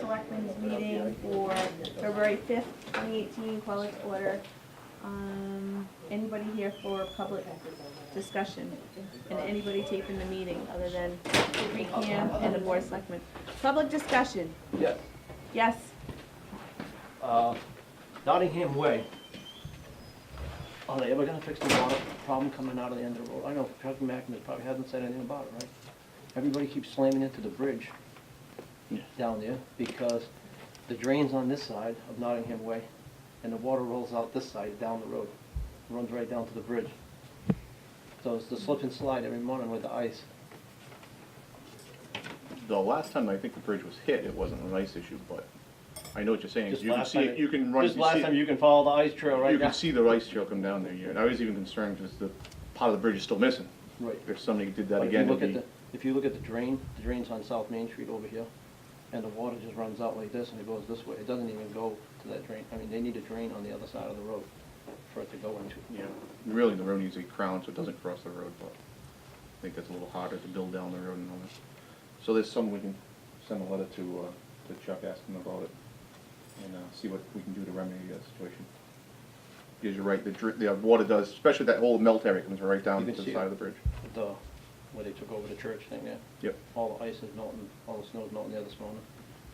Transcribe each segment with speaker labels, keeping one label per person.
Speaker 1: Selectmen's meeting for February fifth, twenty eighteen, call it to order. Um, anybody here for public discussion? And anybody taping the meeting other than Recan and the board of selectmen? Public discussion,
Speaker 2: Yes.
Speaker 1: yes,
Speaker 2: Uh, Nottingham Way. Are they ever gonna fix the water problem coming out of the end of the road? I know Chuck McNamara probably hasn't said anything about it, right? Everybody keeps slamming into the bridge down there because the drain's on this side of Nottingham Way and the water rolls out this side down the road, runs right down to the bridge. So it's the slip and slide every morning with the ice.
Speaker 3: The last time I think the bridge was hit, it wasn't an ice issue, but I know what you're saying.
Speaker 2: Just
Speaker 3: You can
Speaker 2: last
Speaker 3: see,
Speaker 2: time
Speaker 3: it- you can run, you
Speaker 2: Just last time,
Speaker 3: see,
Speaker 2: you can follow the ice trail
Speaker 3: it- you
Speaker 2: right down.
Speaker 3: can see the ice trail come down there, yeah. And I was even concerned because the part of the bridge is still missing.
Speaker 2: Right.
Speaker 3: If somebody did that
Speaker 2: But if you
Speaker 3: again,
Speaker 2: look
Speaker 3: it'd
Speaker 2: at
Speaker 3: be,
Speaker 2: the, if you look at the drain, the drain's on South Main Street over here, and the water just runs out like this and it goes this way. It doesn't even go to that drain. I mean, they need a drain on the other side of the road for it to go into.
Speaker 3: yeah. Really, the road needs a crown so it doesn't cross the road, but I think that's a little harder to build down the road and all that. So there's some, we can send a letter to, uh, to Chuck, ask him about it and, uh, see what we can do to remedy that situation. Because you're right, the dri, the water does, especially that whole melt area comes right down
Speaker 2: You
Speaker 3: to
Speaker 2: can
Speaker 3: the
Speaker 2: see
Speaker 3: side
Speaker 2: it.
Speaker 3: of the bridge.
Speaker 2: The, where they took over the church thing there.
Speaker 3: Yep.
Speaker 2: All the ice is melting, all the snow's melting there this morning,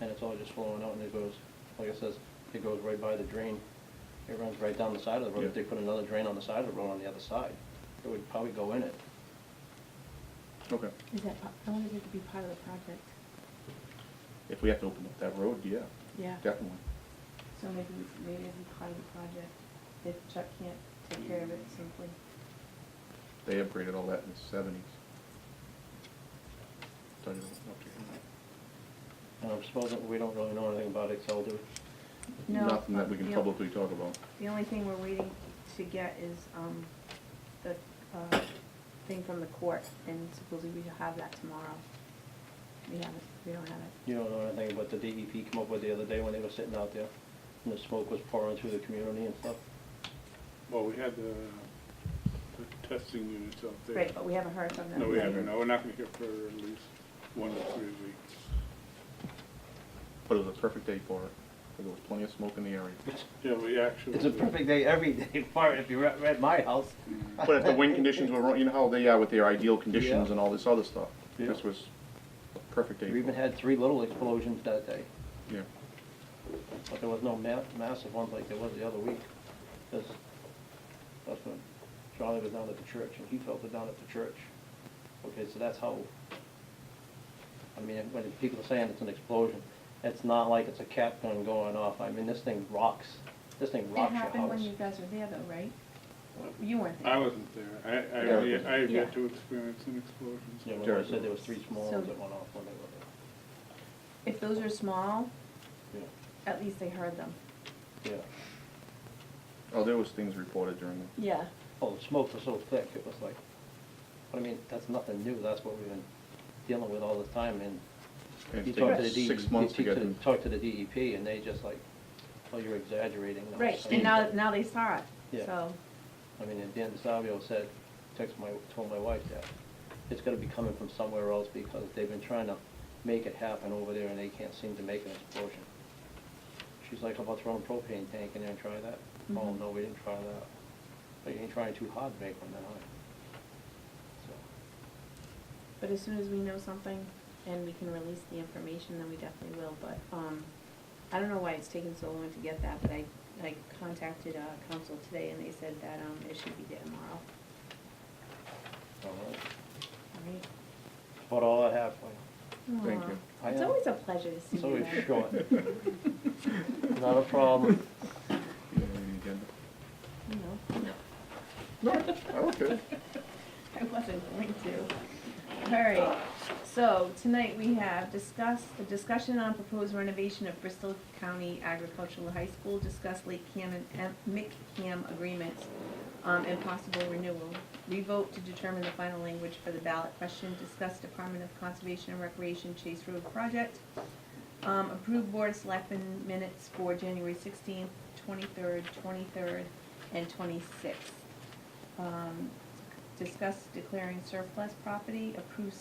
Speaker 2: and it's all just flowing out and it goes, like I says, it goes right by the drain. It runs right down the side of the road. If
Speaker 3: Yeah.
Speaker 2: they put another drain on the side of the road on the other side, it would probably go in it.
Speaker 3: Okay.
Speaker 1: is that, pi- I wanted it to be part of the project,
Speaker 3: If we have to open up that road, yeah,
Speaker 1: yeah.
Speaker 3: definitely.
Speaker 1: So maybe, maybe it'd be part of the project, if Chuck can't take care of it simply.
Speaker 3: They upgraded all that in the seventies. Tell you what,
Speaker 2: And I'm supposing, we don't really know anything about it, so I'll do
Speaker 1: No,
Speaker 3: Nothing that we can
Speaker 1: yeah.
Speaker 3: publicly talk about.
Speaker 1: The only thing we're waiting to get is, um, the, uh, thing from the court, and supposedly we should have that tomorrow. We haven't, we don't have it.
Speaker 2: You don't know anything about the DEP come up with the other day when they were sitting out there, and the smoke was pouring through the community and stuff?
Speaker 4: Well, we had the, the testing units out there.
Speaker 1: Right, but we haven't heard from them.
Speaker 4: No, we haven't, no, we're not gonna hear for at least one to three weeks.
Speaker 3: But it was a perfect day for it, 'cause there was plenty of smoke in the area.
Speaker 4: Yeah, we actually.
Speaker 2: It's a perfect day every day for it, if you're at, at my house.
Speaker 3: But if the wind conditions were wrong, you know how they are with their ideal conditions
Speaker 2: Yeah.
Speaker 3: and all this other stuff?
Speaker 2: Yeah.
Speaker 3: This was a perfect day
Speaker 2: We even
Speaker 3: for it.
Speaker 2: had three little explosions that day,
Speaker 3: Yeah,
Speaker 2: but there was no ma- massive ones like there was the other week. That's, that's when Charlie was down at the church, and he felt it down at the church. Okay, so that's how, I mean, when people are saying it's an explosion, it's not like it's a cap gun going off. I mean, this thing rocks, this thing
Speaker 1: It
Speaker 2: rocks your house.
Speaker 1: happened when you guys were there though, right? You weren't
Speaker 4: I
Speaker 1: there.
Speaker 4: wasn't there, I, I,
Speaker 3: Yeah.
Speaker 4: have yet- I have
Speaker 1: Yeah.
Speaker 4: yet to experience an
Speaker 2: Yeah,
Speaker 4: explosion.
Speaker 2: when I said there was three small ones
Speaker 1: So-
Speaker 2: that went off when they were
Speaker 1: If those are small,
Speaker 2: there.
Speaker 1: at least they heard them.
Speaker 2: Yeah, yeah.
Speaker 3: oh, there was things reported during the,
Speaker 1: Yeah.
Speaker 2: Oh, the smoke was so thick, it was like, but I mean, that's nothing new, that's what we've been dealing with all the time, and
Speaker 3: and
Speaker 2: you
Speaker 3: it's
Speaker 2: talk to
Speaker 3: taken
Speaker 2: the DEP.
Speaker 3: six months to
Speaker 2: you
Speaker 3: get
Speaker 2: talk
Speaker 3: them.
Speaker 2: Talk to the DEP, and they just like, oh, you're exaggerating. I'm
Speaker 1: Right,
Speaker 2: saying
Speaker 1: and now,
Speaker 2: that."
Speaker 1: now they saw it,
Speaker 2: Yeah.
Speaker 1: so,
Speaker 2: I mean, and Dan DeSavio said, text my, told my wife that, it's gonna be coming from somewhere else, because they've been trying to make it happen over there, and they can't seem to make an explosion. She's like, how about throwing a propane tank in there and try that? Oh,
Speaker 1: Mhm.
Speaker 2: no, we didn't try that, but you ain't trying too hard to make one that high. So,
Speaker 1: but as soon as we know something and we can release the information, then we definitely will, but, um, I don't know why it's taken so long to get that, but I, I contacted, uh, council today and they said that, um, it should be there tomorrow,
Speaker 2: all right,
Speaker 1: all right?
Speaker 2: but all that happened,
Speaker 3: Thank
Speaker 1: Aw,
Speaker 3: you.
Speaker 2: I
Speaker 1: It's
Speaker 2: am-
Speaker 1: always a pleasure to see
Speaker 2: it's
Speaker 1: you
Speaker 2: always
Speaker 1: guys.
Speaker 2: short, not a problem.
Speaker 3: You have any agenda?
Speaker 1: You know,
Speaker 3: Oh, okay.
Speaker 1: I wasn't going to. All right, so tonight we have discussed, a discussion on proposed renovation of Bristol County Agricultural High School, discuss Lake Cam and M- McCam agreements, um, and possible renewal. We vote to determine the final language for the ballot question, discuss Department of Conservation and Recreation Chase Road project, um, approve board of selectmen minutes for January sixteenth, twenty-third, twenty-third, and twenty-sixth. Um, discuss declaring surplus property, approve